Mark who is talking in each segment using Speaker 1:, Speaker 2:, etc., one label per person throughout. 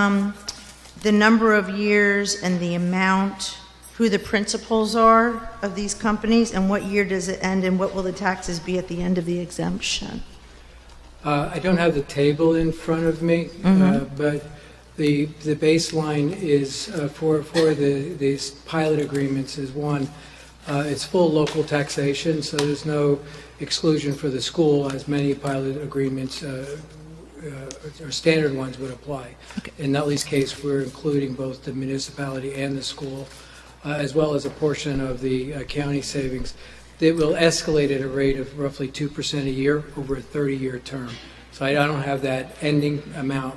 Speaker 1: um, the number of years and the amount, who the principals are of these companies, and what year does it end, and what will the taxes be at the end of the exemption?
Speaker 2: Uh, I don't have the table in front of me, uh, but the the baseline is uh, for for the these pilot agreements is one, uh, it's full local taxation, so there's no exclusion for the school, as many pilot agreements uh, uh, or standard ones would apply. In Nutley's case, we're including both the municipality and the school, uh, as well as a portion of the uh, county savings. It will escalate at a rate of roughly 2% a year over a 30-year term. So I don't have that ending amount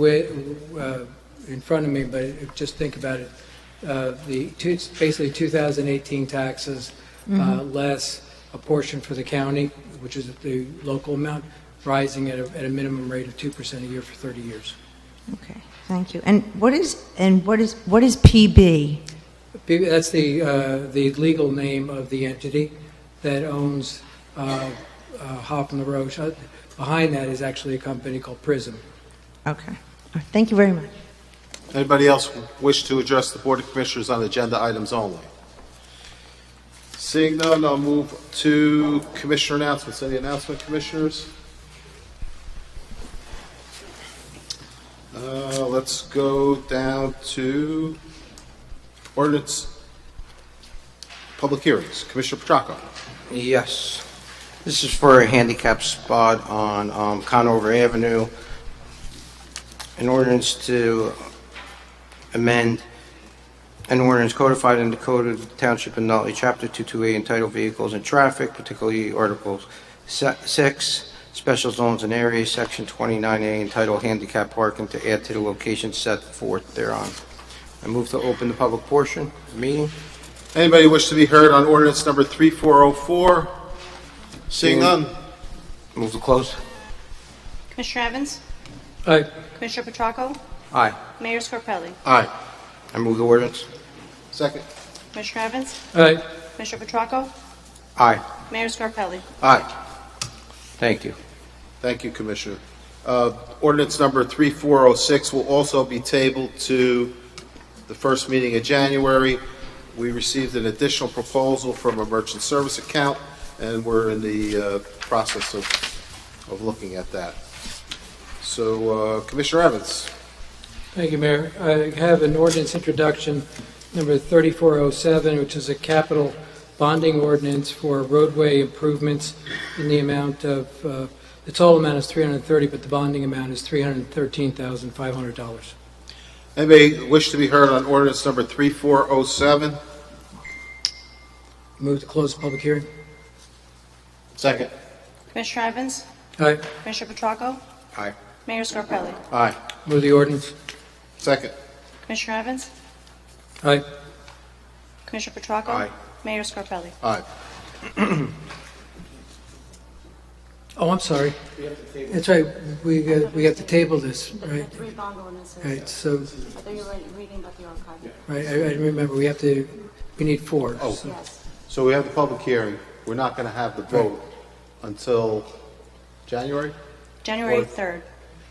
Speaker 2: wi- uh, in front of me, but if- just think about it. Uh, The, two- basically 2018 taxes, uh, less a portion for the county, which is the local amount, rising at a, at a minimum rate of 2% a year for 30 years.
Speaker 1: Okay, thank you. And what is, and what is, what is PB?
Speaker 2: P- That's the, uh, the legal name of the entity that owns uh, uh, Hoffman La Roche. Uh, Behind that is actually a company called Prism.
Speaker 1: Okay, All right, thank you very much.
Speaker 3: Anybody else wish to address the Board of Commissioners on agenda items only? Seeing none, I'll move to Commissioner announcements. Any announcement, Commissioners? Uh, Let's go down to ordinance, public hearings. Commissioner Petracco.
Speaker 4: Yes. This is for a handicap spot on um, Conover Avenue. An ordinance to amend an ordinance codified in the Code of the Township of Nutley, Chapter 228, entitled Vehicles and Traffic, particularly Articles Se- 6, Special Zones and Areas, Section 29A, entitled Handicap Parking, to add to the location set forth thereon. I move to open the public portion of the meeting.
Speaker 3: Anybody wish to be heard on ordinance number 3404? Seeing none,
Speaker 4: Move to close.
Speaker 5: Commissioner Evans?
Speaker 2: Uh,
Speaker 5: Commissioner Petracco?
Speaker 4: Aye.
Speaker 5: Mayor Scarpelli?
Speaker 3: aye.
Speaker 4: I move the ordinance.
Speaker 3: Second.
Speaker 5: Commissioner Evans?
Speaker 2: uh,
Speaker 5: Commissioner Petracco?
Speaker 4: Aye.
Speaker 5: Mayor Scarpelli?
Speaker 3: Aye.
Speaker 4: Thank you.
Speaker 3: Thank you, Commissioner. Uh, Ordinance number 3406 will also be tabled to the first meeting of January. We received an additional proposal from a merchant service account, and we're in the uh, process of of looking at that. So, uh, Commissioner Evans,
Speaker 2: Thank you, Mayor. I have an ordinance introduction, number 3407, which is a capital bonding ordinance for roadway improvements in the amount of, uh, the total amount is 330, but the bonding amount is $313,500.
Speaker 3: anybody wish to be heard on ordinance number 3407?
Speaker 2: Move to close the public hearing.
Speaker 3: Second.
Speaker 5: Commissioner Evans?
Speaker 2: Aye.
Speaker 5: Commissioner Petracco?
Speaker 3: Aye.
Speaker 5: Mayor Scarpelli?
Speaker 3: Aye.
Speaker 2: Move the ordinance.
Speaker 3: Second.
Speaker 5: Commissioner Evans?
Speaker 2: Aye.
Speaker 5: Commissioner Petracco?
Speaker 3: Aye.
Speaker 5: Mayor Scarpelli?
Speaker 3: Aye.
Speaker 2: Oh, I'm sorry. That's right, we, got- we have to table this, right?
Speaker 6: Three bond ordinances.
Speaker 2: Right, so,
Speaker 6: I thought you were reading about the archive.
Speaker 2: right, I I remember, we have to, we need four.
Speaker 3: Oh.
Speaker 2: so-
Speaker 6: Yes.
Speaker 3: So we have the public hearing. We're not going to have the vote until January?
Speaker 5: January
Speaker 3: Or-
Speaker 5: 3rd.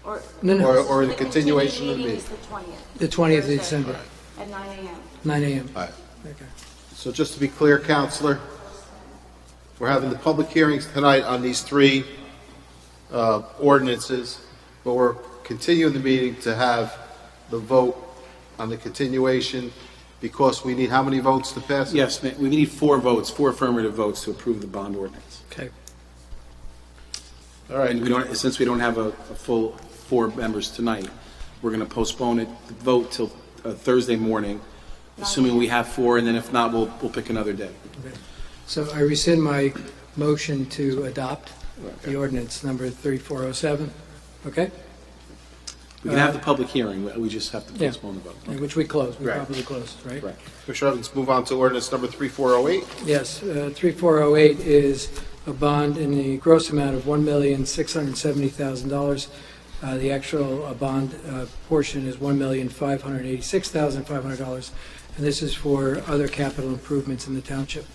Speaker 6: Or
Speaker 2: No,
Speaker 3: Or,
Speaker 2: no,
Speaker 3: or the continuation of the
Speaker 6: meeting
Speaker 3: meeting.
Speaker 6: is the 20th.
Speaker 2: the 20th of
Speaker 6: Thursday
Speaker 2: December,
Speaker 6: At 9 a.m.
Speaker 2: nine AM.
Speaker 3: All right.
Speaker 2: Okay.
Speaker 3: So just to be clear, Counselor, we're having the public hearings tonight on these three uh, ordinances, but we're continuing the meeting to have the vote on the continuation because we need how many votes to pass? it?
Speaker 7: Yes, ma- we need four votes, four affirmative votes to approve the bond ordinance.
Speaker 2: Okay.
Speaker 3: All right.
Speaker 7: And we don't, since we don't have a, a full four members tonight, we're going to postpone it, the vote till uh, Thursday morning, assuming we have four, and then if not, we'll, we'll pick another day.
Speaker 2: So I rescind my motion to adopt the ordinance number 3407, okay?
Speaker 7: We can have the public hearing, we- we just have to
Speaker 2: Yeah.
Speaker 7: postpone the vote.
Speaker 2: And Which we closed, we
Speaker 7: Right.
Speaker 2: probably closed, right?
Speaker 7: Correct.
Speaker 3: Commissioner Evans, move on to ordinance number 3408.
Speaker 2: Yes, uh, 3408 is a bond in the gross amount of $1,670,000. Uh, The actual uh, bond uh, portion is $1,586,500, and this is for other capital improvements in the township.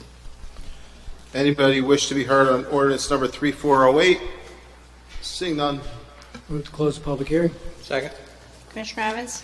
Speaker 3: Anybody wish to be heard on ordinance number 3408? Seeing none.
Speaker 2: Move to close the public hearing.
Speaker 4: Second.
Speaker 5: Commissioner Evans?